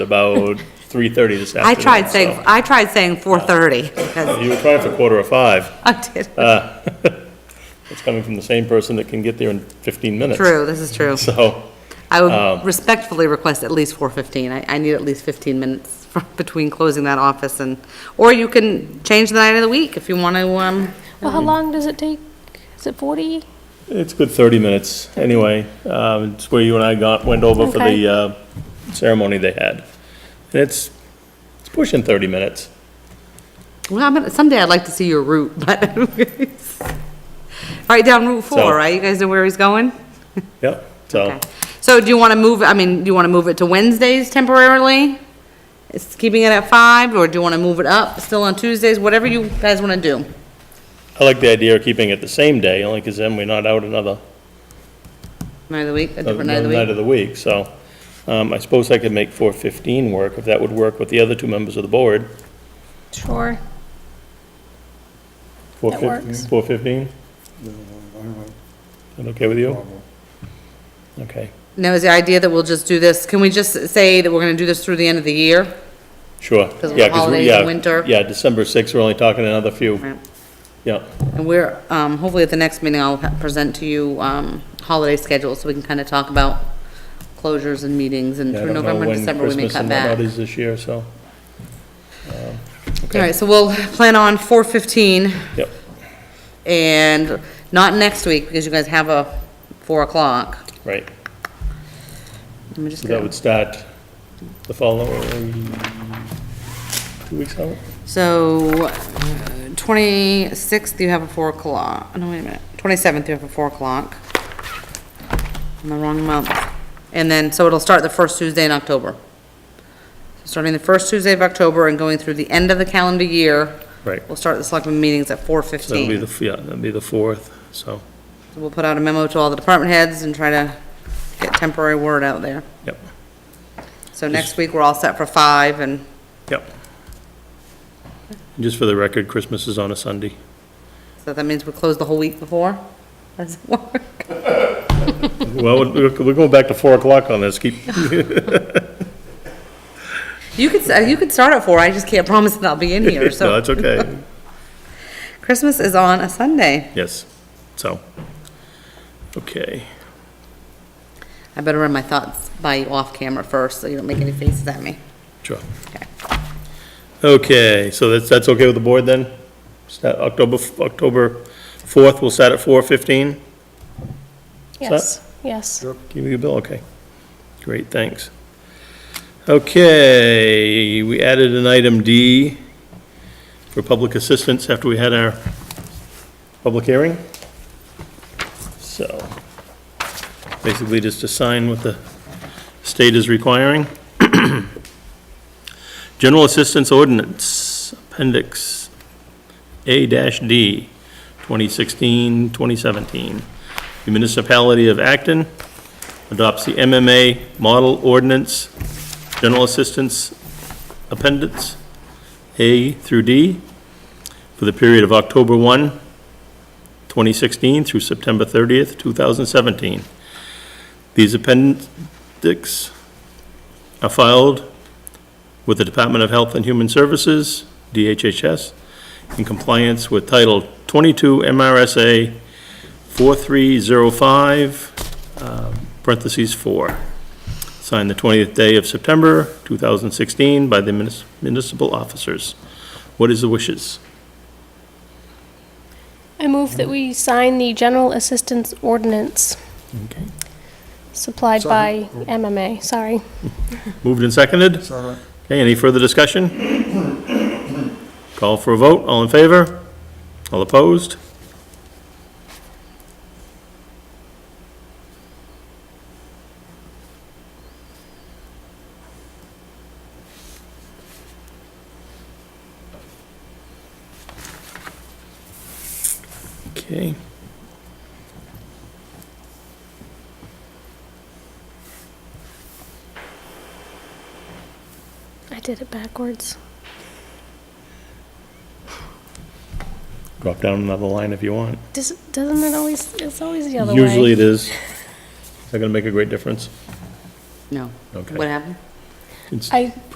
about three thirty this I afternoon. tried saying, I tried saying 4:30, so. 'cause You were trying for quarter of five. I did, Uh, It's coming from the same person that can get there in fifteen minutes. true, this is true. So, um, I would respectfully request at least 4:15. I, I need at least 15 minutes for- between closing that office and, or you can change the night of the week if you want to, um, Well, how long does it take? Is it 40? it's good thirty minutes, anyway, um, it's where you and I got, went over for Okay. the, uh, ceremony they had. And it's, it's pushing thirty minutes. well, I'm gonna- someday I'd like to see your route, but. All right, down Route 4, So- Oh. right? You guys know where he's going? Yep, so, Okay. So do you want to move, I mean, do you want to move it to Wednesdays temporarily? It's keeping it at 5, or do you want to move it up, still on Tuesdays, whatever you guys want to do? I like the idea of keeping it the same day, only because then we're not out another Night of the week, a Another different night of the week? Night of the week, so, um, I suppose I could make four fifteen work, if that would work with the other two members of the board. Sure. Four That fifteen. works. Four fifteen, that okay with you? Problem. Okay, Now, is the idea that we'll just do this, can we just say that we're gonna do this through the end of the year? sure. 'Cause of Yeah, the holidays yeah, and winter. Yeah, December sixth, we're only talking another few, Right. yeah, And we're, um, hopefully at the next meeting, I'll ha- present to you, um, holiday schedules, so we can kinda talk about closures and meetings, and Yeah, I through don't know November, when December, we may Christmas cut and whatnot back. is this year, so, um, All right, so we'll plan on four fifteen, yep, and not next week, because you guys have a four o'clock. right. Let me just So that go. would start the following, two weeks out? So, twenty-sixth, you have a four o'clock, Oh, no, wait a minute, twenty-seventh, you have a four o'clock. In the wrong month. And then, so it'll start the first Tuesday in October. Starting the first Tuesday of October and going through the end of the calendar year. Right. We'll start the selectmen meetings at four So That'll be fifteen. the, yeah, that'll be the fourth, so, We'll put out a memo to all the department heads and try to get temporary word out there. yep, So next week, we're all set for five and, yep. Just for the record, Christmas is on a Sunday. so that means we close the whole week before? How does it work? Well, we're we're going back to 4 o'clock on this, keep, You could, s- you could start at four, I just can't promise that I'll be in no, here, so. it's okay, Christmas is on a Sunday. yes, so, okay. I better run my thoughts by you off camera first, so you don't make any faces at me. Sure. Okay, so that's, that's okay with the board then? Start October, October 4th, we'll start at 4:15? Yes, yes. Give you a bill, okay. Great, thanks. Okay, we added an item D for public assistance after we had our public hearing. So, basically just to sign what the state is requiring. General Assistance Ordinance, Appendix A-D, 2016, 2017. The Municipality of Acton adopts the MMA Model Ordinance, General Assistance Appendix A through D for the period of October 1, 2016 through September 30th, 2017. These appendix are filed with the Department of Health and Human Services, DHHS, in compliance with Title 22 MRSA 4305, um, parentheses 4. Signed the 20th day of September 2016 by the munis- municipal officers. What is the wishes? I move that we sign the general assistance ordinance Okay. supplied by MMA, sorry. Moved and seconded? Second. Okay, any further discussion? Call for a vote, all in favor? All opposed? Okay. I did it backwards. Drop down another line if you want. Does- Doesn't it always, it's always the other way. Usually it is. Is that gonna make a great difference? No. Okay. What happened? Cons- I